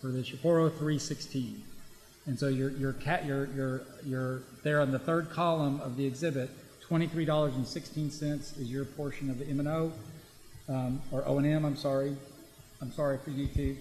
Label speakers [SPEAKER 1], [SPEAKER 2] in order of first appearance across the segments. [SPEAKER 1] for this year, 40316. And so your, your cat, your, your, your, there on the third column of the exhibit, $23.16 is your portion of the M and O, um, or O and M, I'm sorry. I'm sorry for you two.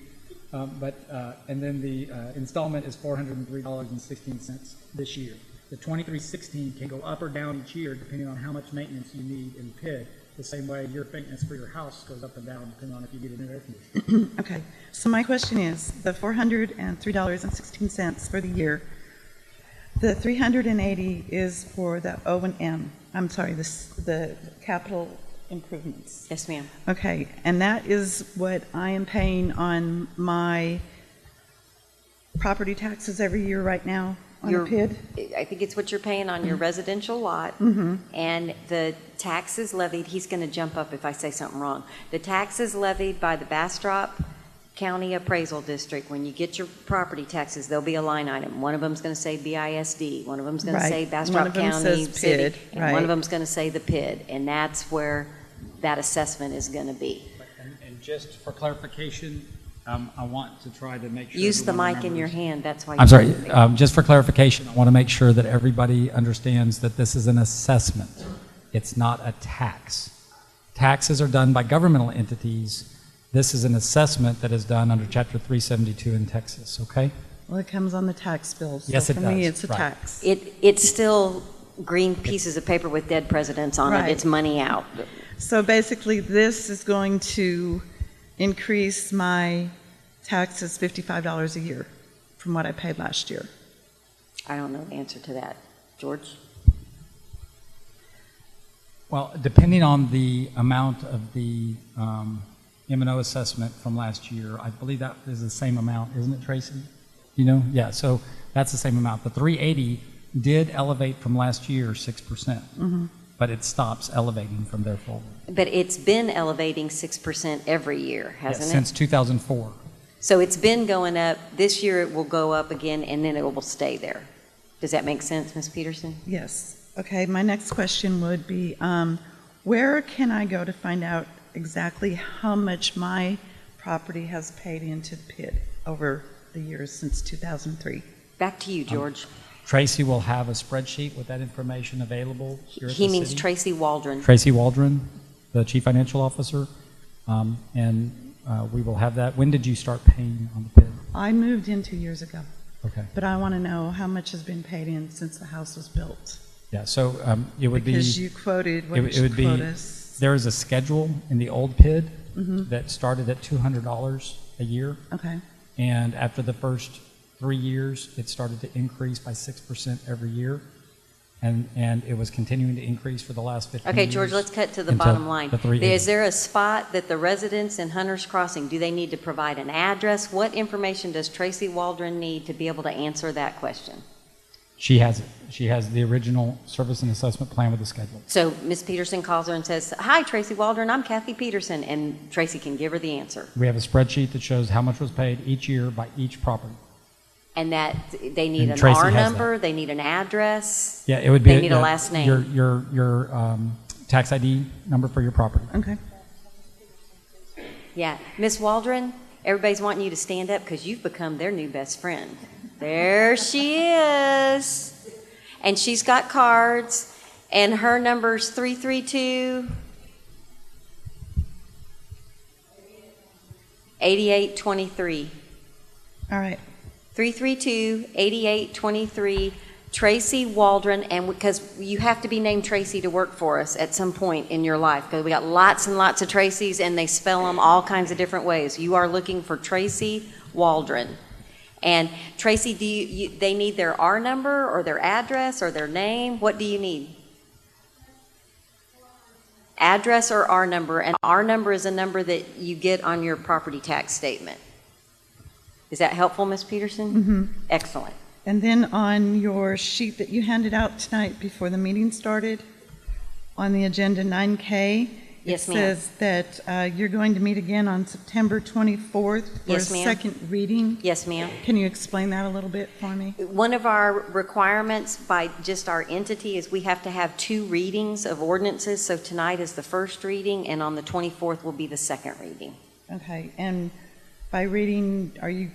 [SPEAKER 1] Um, but, uh, and then the, uh, installment is $403.16 this year. The 2316 can go up or down each year depending on how much maintenance you need in PID. The same way your maintenance for your house goes up and down depending on if you get a new air conditioner.
[SPEAKER 2] Okay, so my question is, the $403.16 for the year, the 380 is for the O and M, I'm sorry, the, s- the capital improvements.
[SPEAKER 3] Yes, ma'am.
[SPEAKER 2] Okay, and that is what I am paying on my property taxes every year right now on a
[SPEAKER 3] Your-
[SPEAKER 2] PID?
[SPEAKER 3] I think it's what you're paying on your residential lot.
[SPEAKER 2] Mm-hmm.
[SPEAKER 3] And the taxes levied, he's going to jump up if I say something wrong. The taxes levied by the Bastrop County Appraisal District, when you get your property taxes, there'll be a line item. One of them's going to say BISD, one of them's going to
[SPEAKER 2] Right.
[SPEAKER 3] say
[SPEAKER 2] One
[SPEAKER 3] Bastrop
[SPEAKER 2] of 'em
[SPEAKER 3] County
[SPEAKER 2] says
[SPEAKER 3] City.
[SPEAKER 2] PID,
[SPEAKER 3] And one
[SPEAKER 2] right.
[SPEAKER 3] of them's going to say the PID, and that's where that assessment is going to be.
[SPEAKER 1] And, and just for clarification, um, I want to try to make sure.
[SPEAKER 3] Use the
[SPEAKER 1] everyone
[SPEAKER 3] mic in your
[SPEAKER 1] remembers-
[SPEAKER 3] hand, that's why.
[SPEAKER 1] I'm
[SPEAKER 3] you-
[SPEAKER 1] sorry, um, just for clarification, I want to make sure that everybody understands that this is an assessment. It's not a tax. Taxes are done by governmental entities. This is an assessment that is done under Chapter 372 in Texas, okay?
[SPEAKER 2] Well, it comes on the tax bill, so
[SPEAKER 1] Yes, it
[SPEAKER 2] for me,
[SPEAKER 1] does,
[SPEAKER 2] it's a
[SPEAKER 1] right.
[SPEAKER 2] tax.
[SPEAKER 3] It, it's still green pieces of paper with dead presidents on it.
[SPEAKER 2] Right.
[SPEAKER 3] It's money out.
[SPEAKER 2] So basically, this is going to increase my taxes $55 a year from what I paid last year.
[SPEAKER 3] I don't know the answer to that. George?
[SPEAKER 1] Well, depending on the amount of the um, M and O assessment from last year, I believe that is the same amount, isn't it, Tracy? You know, yeah. So that's the same amount. The 380 did elevate from last year six percent,
[SPEAKER 3] Mm-hmm.
[SPEAKER 1] but it stops elevating from there forward.
[SPEAKER 3] But it's been elevating 6% every year, hasn't it?
[SPEAKER 1] Since 2004.
[SPEAKER 3] So it's been going up. This year it will go up again and then it will stay there. Does that make sense, Ms. Peterson?
[SPEAKER 2] Yes. Okay, my next question would be, um, where can I go to find out exactly how much my property has paid into the PID over the years since 2003?
[SPEAKER 3] Back to
[SPEAKER 1] Um,
[SPEAKER 3] you, George.
[SPEAKER 1] Tracy will have a spreadsheet with that information available. Here at
[SPEAKER 3] He
[SPEAKER 1] the
[SPEAKER 3] means
[SPEAKER 1] city.
[SPEAKER 3] Tracy Waldron.
[SPEAKER 1] Tracy Waldron, the Chief Financial Officer, um, and uh, we will have that. When did you start paying on the bid?
[SPEAKER 2] I moved in two years ago,
[SPEAKER 1] Okay.
[SPEAKER 2] but I want to know how much has been paid in since the house was built.
[SPEAKER 1] Yeah, so um, it would be,
[SPEAKER 2] Because you quoted
[SPEAKER 1] it would-
[SPEAKER 2] what
[SPEAKER 1] it
[SPEAKER 2] your
[SPEAKER 1] would be-
[SPEAKER 2] quotas.
[SPEAKER 1] there is a schedule in the old PID
[SPEAKER 3] Mm-hmm.
[SPEAKER 1] that started at $200 a year,
[SPEAKER 2] Okay,
[SPEAKER 1] and after the first three years, it started to increase by 6% every year, and, and it was continuing to increase for the last 15 years.
[SPEAKER 3] Okay, George, let's cut to the
[SPEAKER 1] until
[SPEAKER 3] bottom line.
[SPEAKER 1] the 380.
[SPEAKER 3] Is there a spot that the residents in Hunter's Crossing, do they need to provide an address? What information does Tracy Waldron need to be able to answer that question?
[SPEAKER 1] She has it. She has the original service and assessment plan with the schedule.
[SPEAKER 3] So Ms. Peterson calls her and says, "Hi, Tracy Waldron, I'm Kathy Peterson," and Tracy can give her the answer.
[SPEAKER 1] We have a spreadsheet that shows how much was paid each year by each property.
[SPEAKER 3] And that they need
[SPEAKER 1] And
[SPEAKER 3] an
[SPEAKER 1] Tracy
[SPEAKER 3] R
[SPEAKER 1] has that.
[SPEAKER 3] number, they need an address.
[SPEAKER 1] Yeah, it would be.
[SPEAKER 3] They need a
[SPEAKER 1] yeah,
[SPEAKER 3] last name.
[SPEAKER 1] Your, your, your um, tax ID number for your property.
[SPEAKER 2] okay.
[SPEAKER 3] Yeah, Ms. Waldron, everybody's wanting you to stand up because you've become their new best friend. There she is. And she's got cards, and her number's 332 8823.
[SPEAKER 2] All right,
[SPEAKER 3] 332-8823, Tracy Waldron, and because you have to be named Tracy to work for us at some point in your life, because we got lots and lots of Tracys, and they spell them all kinds of different ways. You are looking for Tracy Waldron. And Tracy, do you, you- they need their R number, or their address, or their name? What do you need? Address or R number, and R number is a number that you get on your property tax statement. Is that helpful, Ms. Peterson? Mm-hmm. Excellent.
[SPEAKER 2] And then on your sheet that you handed out tonight before the meeting started, on the agenda 9K, it
[SPEAKER 3] Yes, ma'am.
[SPEAKER 2] says that uh, you're going to meet again on September 24th for a
[SPEAKER 3] Yes, ma'am.
[SPEAKER 2] second reading.
[SPEAKER 3] Yes, ma'am.
[SPEAKER 2] Can you explain that a little bit for me?
[SPEAKER 3] One of our requirements by just our entity is we have to have two readings of ordinances. So tonight is the first reading, and on the 24th will be the second reading.
[SPEAKER 2] Okay, and by reading, are you